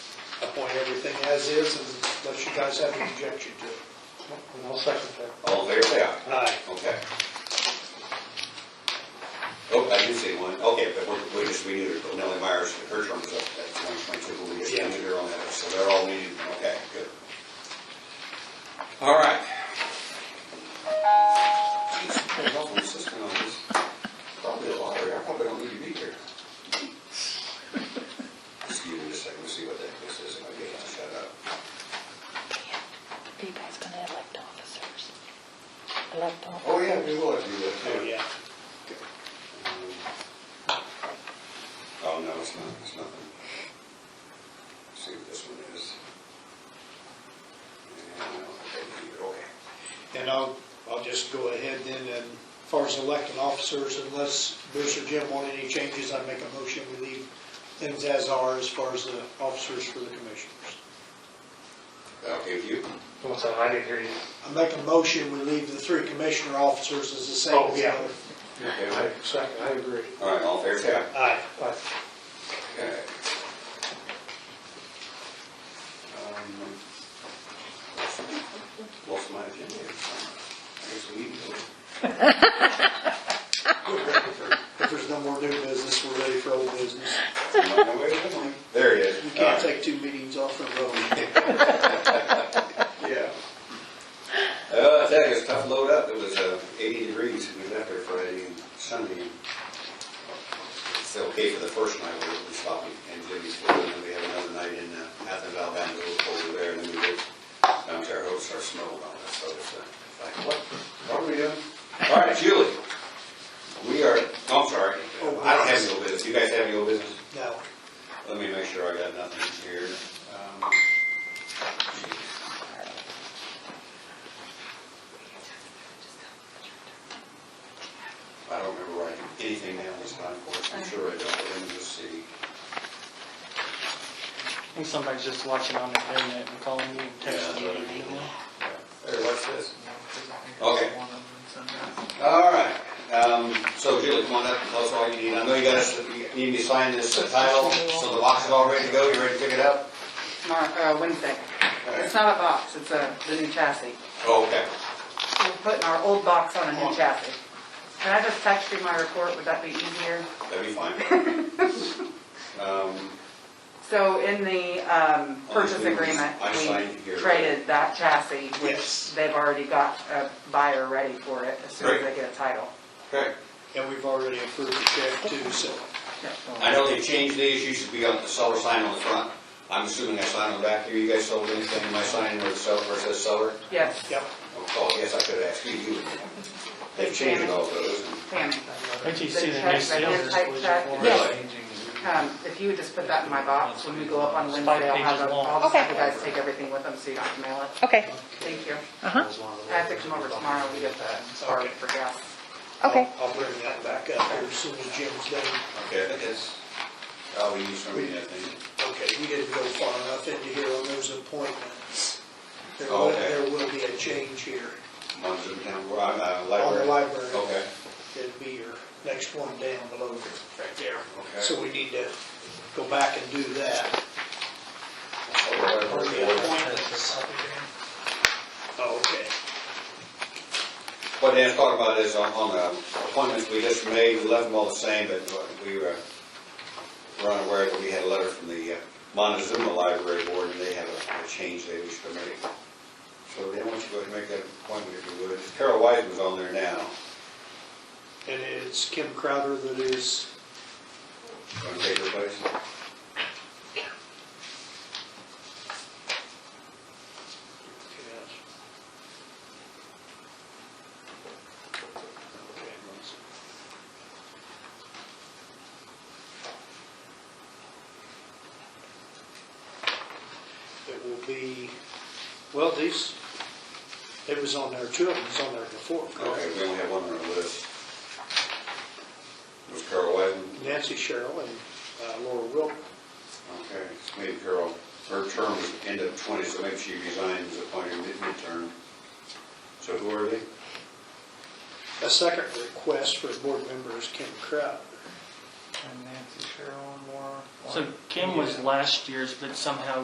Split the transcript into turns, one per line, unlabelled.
point everything as is unless you guys have an objection to it.
And I'll second that.
All in favor, say aye.
Aye.
Okay. Oh, I did say one, okay, but we- we just renewed her, Nellie Myers, her term is up at twenty twenty-two, but we just
Yeah.
renewed her on that, so they're all renewed, okay, good. All right. Jeez, I'm awfully insistent on this. Probably a lottery, I probably don't need to be here. Just give me a second, to see what that, this is, and I'll get, I'll shut up.
Are you guys gonna elect officers? Elect
Oh,
officers?
yeah, we will if you would. too.
yeah.
Oh, no, it's not, it's nothing. Let's See what this one is. Yeah, Okay.
And I'll, I'll just go ahead then, and as far as electing officers, unless Bruce or Jim want any changes, I make a motion, we leave things as are as far as the officers for the commissioners.
Okay, with you?
What's that? I didn't hear you.
I make a motion, we leave the three commissioner officers as the same
Oh,
as the
yeah.
other.
Okay,
I
right.
second, I agree.
All right, all fair and sound.
Aye.
Aye.
Okay. Um, Lost my agenda. here. I guess we need to go.
If there's no more new business, we're ready for old business.
There he is.
You
All
can't
right.
take two meetings off in a row.
Yeah. Uh, I tell you, it's a tough load up. It was, uh, eighty degrees. We was out there Friday and Sunday. It's okay for the first night we were stopping in Jimmy'sville, and then we had another night in uh, Athens, Alabama, a little colder there, and then we did down to our hosts, our snow and all that, so it's, uh, like, what, what are we doing? All right, Julie, we are, oh, I'm sorry. I don't have any old business. You guys have any old business?
No.
Let me make sure I got nothing here. Um, I don't remember writing anything down this time, of course, I'm sure I don't, but let me just see.
I think somebody's just watching on the internet and calling you and
Yeah,
texting you.
that's what I mean. There, what's this? Okay.
Okay.
All right, um, so Julie, come on up, tell us all you need, I know you got us, you need me to sign this title, so the box is all ready to go, you ready to pick it up?
Mar- uh, Wednesday. It's not a box, it's a, the new chassis.
Oh, okay,
We're putting our old box on a new chassis. Can I just text you my report, would that be easier?
that'd be fine. Um,
So in the um, purchase agreement,
I signed here.
we traded that chassis,
Yes.
which they've already got a buyer ready for it as soon as they get a title.
okay,
And we've already approved the check too, so.
I know they changed these, you should be on the seller sign on the front, I'm assuming I signed on the back here, you guys sold anything, my sign where the seller, where it says seller?
Yes,
Yep.
Oh, yes, I could ask you, you would know. They've changed all those. and-
Tammy.
Don't you see the new
They check, they hand
sales
type check.
display?
Really?
Um, If you would just put that in my box, when we go up on
It's
Wednesday,
five
I'll
pages
have, a-
long.
I'll just have
Okay.
you guys take everything with them so you don't have to mail it.
Okay,
Thank you. Uh-huh. I
I
have to come over tomorrow, we get the card for gas.
okay.
I'll I'll bring that back up here as soon as Jim's done.
Okay, I think that's, oh, we used for me, I think.
Okay, we didn't go far enough into here on those appointments. There will,
Okay.
there will be a change here.
One's in town, where I'm, uh,
On the
library.
library.
Okay.
It'd be your next one down below, right there.
Okay.
So we need to go back and do that.
Oh, the library.
Appointments. Okay.
What Dan's talking about is on, on the appointments we just made, we left them all the same, but we were, were unaware that we had a letter from the uh, Montezuma Library Board, and they have a, a change they wish to make. So they want you to go ahead and make that appointment if you would. Carol Wiseman's on there now.
And it's Kim Crowder that is,
Want to take her place?
it will be, well, these, it was on there, two of them was on there before,
Okay,
correct?
we only have one on our list. It was Carol Wiseman.
Nancy Sherrill and uh, Laura Wilk.
Okay, so maybe Carol, her term was end of 20, so maybe she resigns upon her mid- midterm. So who are they?
A second request for a board member is Kim Crowder.
So Kim was last year's, but somehow